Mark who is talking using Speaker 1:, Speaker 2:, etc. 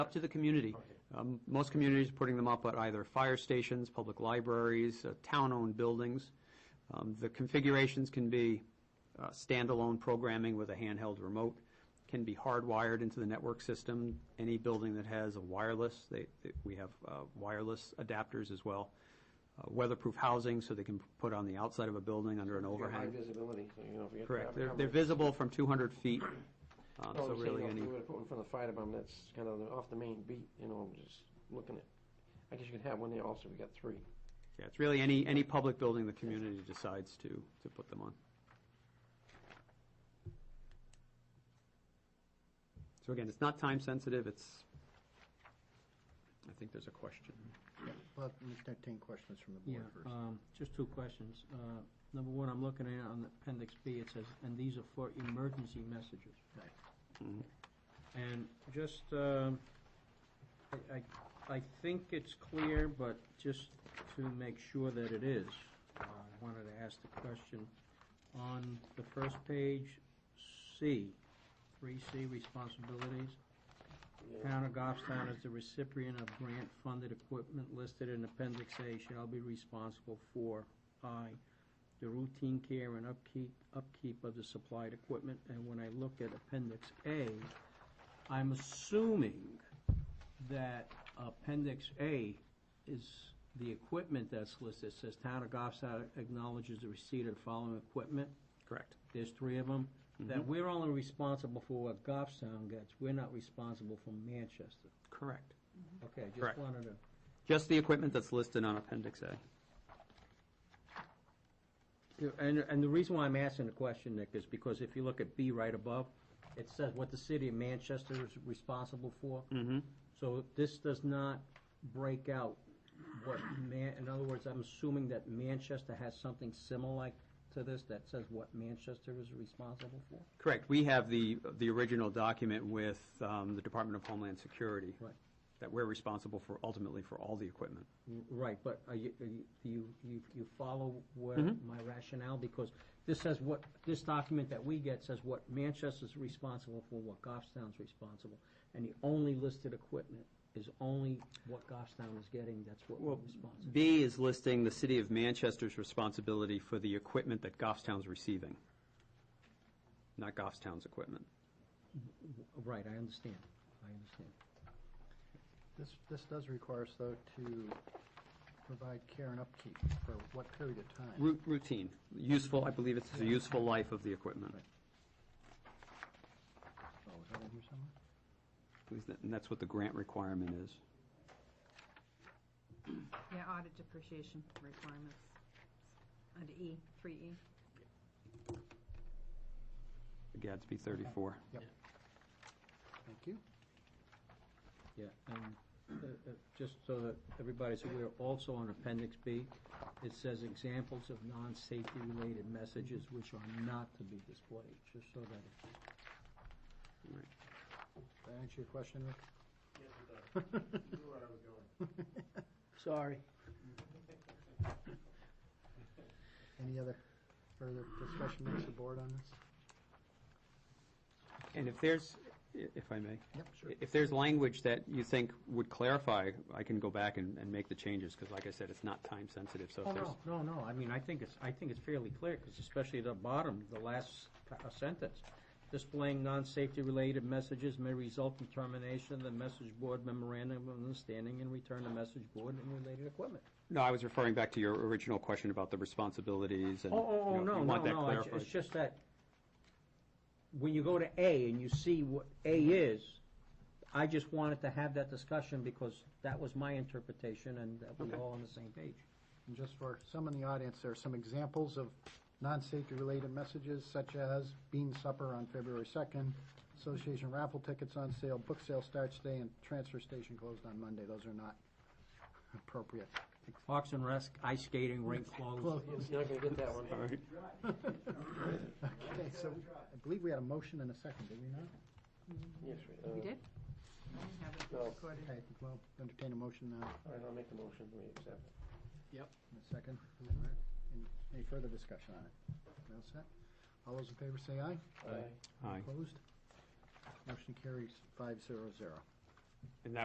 Speaker 1: Up to the community. Um, Most communities are putting them up at either fire stations, public libraries, uh, town-owned buildings. Um, The configurations can be uh, standalone programming with a handheld remote, can be hardwired into the network system. Any building that has a wireless, they, they- we have uh, wireless adapters as well. Uh, Weatherproof housing, so they can put on the outside of a building under an
Speaker 2: You got High
Speaker 1: overhang.
Speaker 2: visibility, so you know, if you get.
Speaker 1: Correct.
Speaker 2: traffic
Speaker 1: They're,
Speaker 2: coming-
Speaker 1: they're visible from 200 feet, um,
Speaker 2: No,
Speaker 1: so
Speaker 2: I'm saying,
Speaker 1: really
Speaker 2: Oh, you know,
Speaker 1: any,
Speaker 2: If you were to put one in front of the fire department, that's kind of off the main beat, you know, just looking at, I guess you could have one there also, we got three.
Speaker 1: yeah, it's really any, any public building the community decides to, to put them on. So again, it's not time sensitive, it's, I think there's a question.
Speaker 3: Well, we can entertain questions from the
Speaker 4: Yeah,
Speaker 3: board first.
Speaker 4: um, just two questions. Uh, Number one, I'm looking at on appendix B, it says, and these are for emergency messages. Mm-hmm.
Speaker 3: Right.
Speaker 1: Mhm.
Speaker 4: And just, um, I, I- I think it's clear, but just to make sure that it is, uh, I wanted to ask the question. On the first page, C, three C responsibilities, Town of Goffstown as the recipient of grant-funded equipment listed in Appendix A shall be responsible for, I, the routine care and upkeep, upkeep of the supplied equipment, and when I look at Appendix A, I'm assuming that Appendix A is the equipment that's listed, It says Town of Goffstown acknowledges the receipt of the following equipment,
Speaker 1: Correct.
Speaker 4: there's three of them, that we're only responsible for what Goffstown gets, we're not responsible for Manchester.
Speaker 1: Correct.
Speaker 4: Okay,
Speaker 1: Correct.
Speaker 4: just wanted to,
Speaker 1: Just the equipment that's listed on Appendix A.
Speaker 4: Yeah, and, and the reason why I'm asking the question, Nick, is because if you look at B right above, it says what the city of Manchester is responsible for.
Speaker 1: Mm-hmm.
Speaker 4: So this does not break out what Man, in other words, I'm assuming that Manchester has something similar to this that says what Manchester is responsible for?
Speaker 1: Correct. We have the, the original document with um, the Department of Homeland Security.
Speaker 4: Right.
Speaker 1: That we're responsible for, ultimately, for all the equipment.
Speaker 4: R- Right, but are you, are you- do you, you, you follow where
Speaker 1: Mhm.
Speaker 4: my rationale? Because this says what, this document that we get says what Manchester's responsible for, what Goffstown's responsible. And the only listed equipment is only what Goffstown is getting, that's what we're
Speaker 1: Well,
Speaker 4: responsible.
Speaker 1: B is listing the city of Manchester's responsibility for the equipment that Goffstown's receiving, not Goffstown's equipment.
Speaker 4: Right, I understand, I understand.
Speaker 3: This, this does require us, though, to provide care and upkeep for what period of time?
Speaker 1: Ru- Routine, useful, I believe it's the useful life of the equipment.
Speaker 3: Oh, is that in here somewhere?
Speaker 1: At least that- And that's what the grant requirement is.
Speaker 5: Yeah, audit depreciation requirements, under E, three E.
Speaker 1: Gadsby 34.
Speaker 3: Thank you.
Speaker 4: Yeah, and uh, uh, just so that everybody's aware, also on Appendix B, it says examples of non-safety related messages which are not to be displayed, just so that it's
Speaker 3: Did I answer your question, Rick?
Speaker 4: Sorry.
Speaker 3: Any other further discussion amongst the board on this?
Speaker 1: And if there's, i- if I may,
Speaker 3: Yep, sure.
Speaker 1: if there's language that you think would clarify, I can go back and and make the changes, because like I said, it's not time sensitive, so
Speaker 4: Oh,
Speaker 1: if there's.
Speaker 4: no, no, no, I mean, I think it's, I think it's fairly clear, because especially at the bottom, the last pa- uh, sentence. Displaying non-safety related messages may result in termination of the message board memorandum of understanding and return to message board and related equipment.
Speaker 1: No, I was referring back to your original question about the responsibilities and.
Speaker 4: Oh, oh,
Speaker 1: you
Speaker 4: oh,
Speaker 1: know,
Speaker 4: no,
Speaker 1: you
Speaker 4: no,
Speaker 1: want that
Speaker 4: no, it's-
Speaker 1: clarified.
Speaker 4: it's just that, when you go to A and you see what A is, I just wanted to have that discussion, because that was my interpretation, and that we
Speaker 1: Okay.
Speaker 4: all on the same page.
Speaker 3: And just for some in the audience, there are some examples of non-safety related messages such as bean supper on February 2nd, association raffle tickets on sale, book sale starts today, and transfer station closed on Monday. Those are not appropriate.
Speaker 4: Fox and Rec, ice skating, rink closed.
Speaker 3: Close.
Speaker 2: You're not gonna get that one.
Speaker 1: All right.
Speaker 3: Okay, so I believe we had a motion and a second, did we not?
Speaker 2: Yes, we- uh,
Speaker 5: We did? I didn't have it
Speaker 2: No.
Speaker 5: recorded.
Speaker 3: Okay, well, entertain a motion now
Speaker 2: All right, I'll make the motion, we accept.
Speaker 3: in a second. Any- Any further discussion on it? We All set? All those in favor say aye.
Speaker 2: Aye.
Speaker 1: Aye.
Speaker 3: Opposed? Motion carries five zero zero.
Speaker 1: And that